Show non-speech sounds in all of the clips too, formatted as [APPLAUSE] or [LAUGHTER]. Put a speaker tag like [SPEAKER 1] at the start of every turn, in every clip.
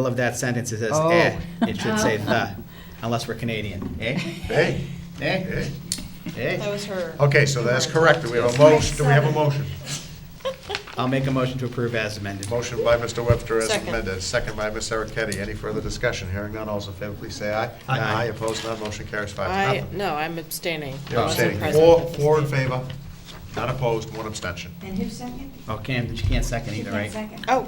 [SPEAKER 1] middle of that sentence, it says
[SPEAKER 2] Oh.
[SPEAKER 1] eh. It should say the, unless we're Canadian. Eh?
[SPEAKER 3] Hey,
[SPEAKER 1] Eh?
[SPEAKER 3] hey.
[SPEAKER 4] That
[SPEAKER 1] Eh?
[SPEAKER 4] was her.
[SPEAKER 3] Okay, so that's correct.
[SPEAKER 4] [LAUGHS]
[SPEAKER 3] Do we have a motion? Do we have a motion?
[SPEAKER 1] I'll make a motion to approve as amended.
[SPEAKER 3] Motion by Mr. Webster as
[SPEAKER 4] Second.
[SPEAKER 3] amended, second by Ms. Ericetti. Any further discussion? Hearing none, all's in favor, please say aye.
[SPEAKER 1] Aye.
[SPEAKER 3] opposed, none, motion carries five to
[SPEAKER 4] I,
[SPEAKER 3] nothing.
[SPEAKER 4] no, I'm abstaining. I
[SPEAKER 3] You're
[SPEAKER 4] wasn't
[SPEAKER 3] abstaining.
[SPEAKER 4] present
[SPEAKER 3] Four,
[SPEAKER 4] at this
[SPEAKER 3] four in
[SPEAKER 4] meeting.
[SPEAKER 3] favor, none opposed, one abstention.
[SPEAKER 5] And who second?
[SPEAKER 1] Oh, Cam, she can't second either,
[SPEAKER 5] Who
[SPEAKER 1] right?
[SPEAKER 5] second?
[SPEAKER 4] Oh,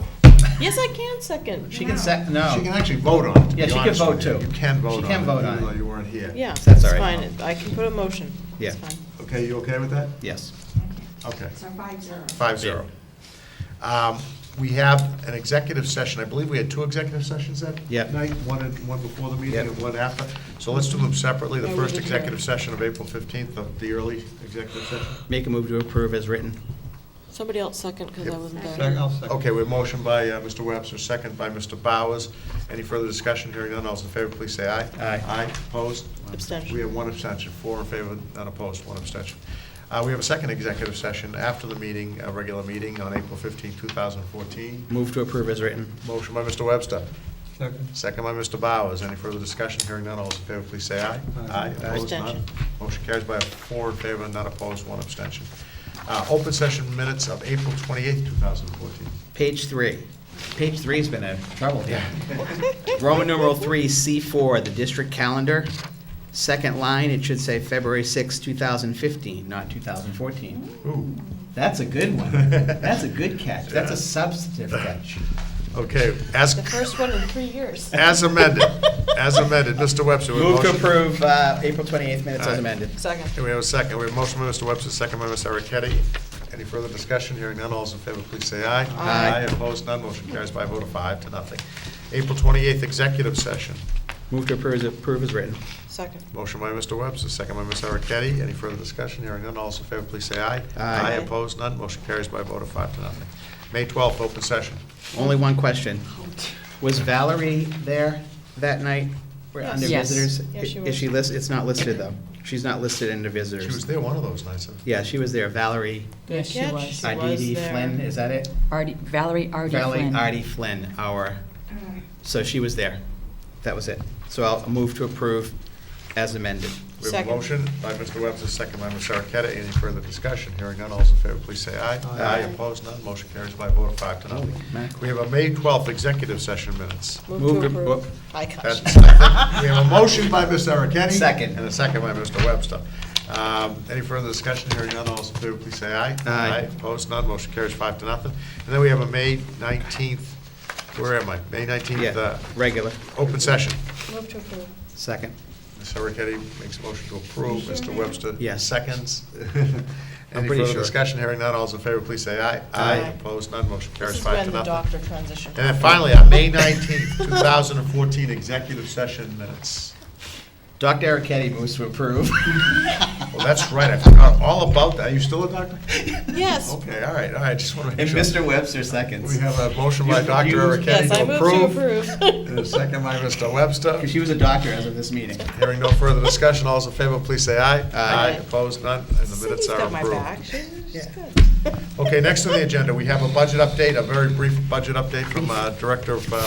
[SPEAKER 4] yes, I can second.
[SPEAKER 1] She can sec, no.
[SPEAKER 3] She can actually vote on it, to
[SPEAKER 1] Yeah,
[SPEAKER 3] be
[SPEAKER 1] she can
[SPEAKER 3] honest with
[SPEAKER 1] vote
[SPEAKER 3] you.
[SPEAKER 1] too.
[SPEAKER 3] You can vote on
[SPEAKER 1] She
[SPEAKER 3] it.
[SPEAKER 1] can vote on
[SPEAKER 3] Even
[SPEAKER 1] it.
[SPEAKER 3] though you weren't here.
[SPEAKER 4] Yeah,
[SPEAKER 1] That's
[SPEAKER 4] it's
[SPEAKER 1] all right.
[SPEAKER 4] fine. I can put a motion. It's
[SPEAKER 1] Yeah.
[SPEAKER 4] fine.
[SPEAKER 3] Okay, you okay with that?
[SPEAKER 1] Yes.
[SPEAKER 3] Okay.
[SPEAKER 5] So five zero.
[SPEAKER 3] Five zero. Um, We have an executive session, I believe we had two executive sessions that
[SPEAKER 1] Yep.
[SPEAKER 3] night, one, in- one before the meeting
[SPEAKER 1] Yep.
[SPEAKER 3] and one after. So let's do them separately, the
[SPEAKER 4] No, we
[SPEAKER 3] first
[SPEAKER 4] did
[SPEAKER 3] executive
[SPEAKER 4] here.
[SPEAKER 3] session of April 15th, the- the early executive session.
[SPEAKER 1] Make a move to approve as written.
[SPEAKER 4] Somebody else second, because I
[SPEAKER 3] Yep.
[SPEAKER 4] wasn't there.
[SPEAKER 2] Second, I'll second.
[SPEAKER 3] Okay, we have motion by uh, Mr. Webster, second by Mr. Bowers. Any further discussion, hearing none, all those in favor, please say aye.
[SPEAKER 1] Aye.
[SPEAKER 3] Aye, opposed?
[SPEAKER 4] Abstention.
[SPEAKER 3] We have one abstention, four in favor, none opposed, one abstention. Uh, We have a second executive session after the meeting, a regular meeting on April 15th, 2014.
[SPEAKER 1] Move to approve as written.
[SPEAKER 3] Motion by Mr. Webster.
[SPEAKER 2] Second.
[SPEAKER 3] Second by Mr. Bowers. Any further discussion? Hearing none, all those in favor, please say aye.
[SPEAKER 2] Aye.
[SPEAKER 3] Opposed, none.
[SPEAKER 4] Abstention.
[SPEAKER 3] Motion carries by a four in favor, none opposed, one abstention. Uh, Open session minutes of April 28, 2014.
[SPEAKER 1] Page three. Page three's been a trouble here. Roman numeral three, C four, the district calendar. Second line, it should say February sixth, two thousand fifteen, not two thousand fourteen.
[SPEAKER 3] Ooh.
[SPEAKER 1] That's a good one. That's a good catch. That's a substantive catch.
[SPEAKER 3] Okay, as,
[SPEAKER 4] The first one in three years.
[SPEAKER 3] as
[SPEAKER 4] [LAUGHS]
[SPEAKER 3] amended, as amended, Mr. Webster. we have a
[SPEAKER 1] Move to
[SPEAKER 3] motion.
[SPEAKER 1] approve uh, April 28th minutes
[SPEAKER 3] Aye.
[SPEAKER 1] as amended.
[SPEAKER 4] Second.
[SPEAKER 3] Okay, we have a second. We have a motion by Mr. Webster, second by Mr. Arricchetti. Any further discussion? Hearing none, all those in favor, please say aye.
[SPEAKER 1] Aye.
[SPEAKER 3] Opposed, none. Motion carries by a vote of five to nothing. April 28th, executive session.
[SPEAKER 1] Move to approve as- approve as written.
[SPEAKER 4] Second.
[SPEAKER 3] Motion by Mr. Webster, second by Ms. Arricchetti. Any further discussion? Hearing none, all those in favor, please say aye.
[SPEAKER 1] Aye.
[SPEAKER 3] opposed, none, motion carries by a vote of five to nothing. May 12th, open session.
[SPEAKER 1] Only one question. Was Valerie there that night? We're under
[SPEAKER 4] Yes.
[SPEAKER 1] visitors?
[SPEAKER 4] Yes, she
[SPEAKER 1] Is
[SPEAKER 4] was.
[SPEAKER 1] she listed? It's not listed, though. She's not listed under visitors.
[SPEAKER 3] She was there one of those nights. huh?
[SPEAKER 1] Yeah, she was there. Valerie
[SPEAKER 4] Good
[SPEAKER 6] Yes, she
[SPEAKER 4] catch.
[SPEAKER 6] was.
[SPEAKER 4] She was
[SPEAKER 1] Arditi
[SPEAKER 4] there.
[SPEAKER 1] Flynn, is that it?
[SPEAKER 6] Artie, Valerie Artie
[SPEAKER 1] Valerie
[SPEAKER 6] Flynn.
[SPEAKER 1] Artie Flynn, our, so she was there. That was it. So I'll move to approve as amended.
[SPEAKER 3] We have a
[SPEAKER 4] Second.
[SPEAKER 3] motion by Mr. Webster, second by Ms. Arricchetti. Any further discussion? Hearing none, all those in favor, please say aye.
[SPEAKER 2] Aye.
[SPEAKER 3] opposed, none, motion carries by a vote of five to nothing.
[SPEAKER 1] Holy mackerel.
[SPEAKER 3] We have a May 12th executive session minutes.
[SPEAKER 4] Move to
[SPEAKER 1] Move to-
[SPEAKER 4] approve. I
[SPEAKER 3] That's-
[SPEAKER 4] catch.
[SPEAKER 3] I think We have a motion by Ms. Arricchetti.
[SPEAKER 1] Second.
[SPEAKER 3] And a second by Mr. Webster. Um, Any further discussion? Hearing none, all those in favor, please say aye.
[SPEAKER 1] Aye.
[SPEAKER 3] Opposed, none, motion carries five to nothing. And then we have a May 19th, where am I? May 19th,
[SPEAKER 1] Yeah,
[SPEAKER 3] uh,
[SPEAKER 1] regular.
[SPEAKER 3] open session.
[SPEAKER 4] Move to approve.
[SPEAKER 1] Second.
[SPEAKER 3] Ms. Arricchetti makes a motion to approve, Mr. Webster
[SPEAKER 1] Yes.
[SPEAKER 3] seconds. [LAUGHS] Any
[SPEAKER 1] pretty
[SPEAKER 3] further
[SPEAKER 1] sure.
[SPEAKER 3] discussion? Hearing none, all those in favor, please say aye.
[SPEAKER 1] Aye.
[SPEAKER 3] Opposed, none, motion
[SPEAKER 4] This
[SPEAKER 3] carries
[SPEAKER 4] is
[SPEAKER 3] five to
[SPEAKER 4] when the
[SPEAKER 3] nothing.
[SPEAKER 4] doctor transitioned.
[SPEAKER 3] And then finally, on May 19th, 2014, executive session minutes.
[SPEAKER 1] Dr. Ericetti moves to [LAUGHS] approve.
[SPEAKER 3] Well, that's right, I forgot all about that. Are you still a doctor?
[SPEAKER 4] Yes.
[SPEAKER 3] Okay, all right, all right, just want to make
[SPEAKER 1] And
[SPEAKER 3] sure.
[SPEAKER 1] Mr. Webster seconds.
[SPEAKER 3] We have a motion by
[SPEAKER 1] You-
[SPEAKER 3] Dr.
[SPEAKER 1] you-
[SPEAKER 3] Ericetti
[SPEAKER 4] Yes, I
[SPEAKER 3] to
[SPEAKER 4] move to
[SPEAKER 3] approve.
[SPEAKER 4] approve.
[SPEAKER 3] And a second by Mr. Webster.
[SPEAKER 1] Because she was a doctor as of this meeting.
[SPEAKER 3] Hearing no further discussion, all those in favor, please say aye.
[SPEAKER 1] Aye.
[SPEAKER 3] Opposed, none, and the minutes
[SPEAKER 4] [LAUGHS] Cindy's
[SPEAKER 3] are
[SPEAKER 4] got my
[SPEAKER 3] approved.
[SPEAKER 4] back. She's she's
[SPEAKER 1] Yeah.
[SPEAKER 4] good.
[SPEAKER 3] Okay, next on the agenda, we have a budget update, a very brief budget update from uh, Director of uh,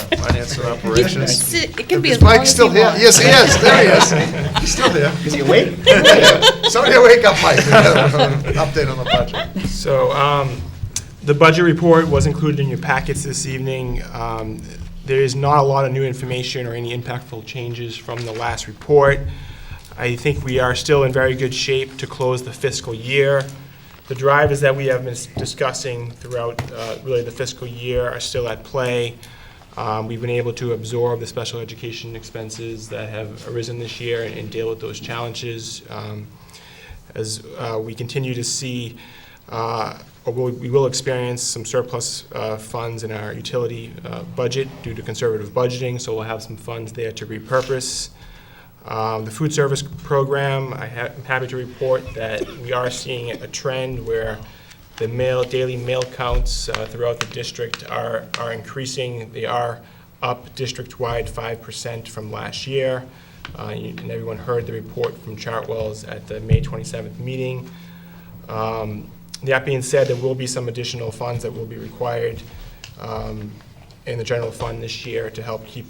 [SPEAKER 1] [LAUGHS]
[SPEAKER 3] Finance and Operations.
[SPEAKER 6] It can be
[SPEAKER 3] Is
[SPEAKER 6] as long
[SPEAKER 3] Mike
[SPEAKER 6] as you
[SPEAKER 3] still
[SPEAKER 6] want.
[SPEAKER 3] here? Yes, he is, there
[SPEAKER 4] [LAUGHS]
[SPEAKER 1] [LAUGHS]
[SPEAKER 3] he is. He's still here.
[SPEAKER 1] Is he awake?
[SPEAKER 3] [LAUGHS] Somebody wake up,
[SPEAKER 1] [LAUGHS]
[SPEAKER 3] Mike, we got an update on the budget.
[SPEAKER 7] So, um, the budget report was included in your packets this evening. Um, There is not a lot of new information or any impactful changes from the last report. I think we are still in very good shape to close the fiscal year. The drivers that we have been discussing throughout, uh, really the fiscal year are still at play. Um, We've been able to absorb the special education expenses that have arisen this year and deal with those challenges. Um, as uh, we continue to see, uh, or we'll- we will experience some surplus uh, funds in our utility uh, budget due to conservative budgeting, so we'll have some funds there to repurpose. Um, The food service program, I ha- I'm happy to report that we are seeing a trend where the mail, daily mail counts uh, throughout the district are are increasing. They are up district-wide 5% from last year. Uh, you- And everyone heard the report from Chartwell's at the May 27th meeting. Um, That being said, there will be some additional funds that will be required um, in the general fund this year to help keep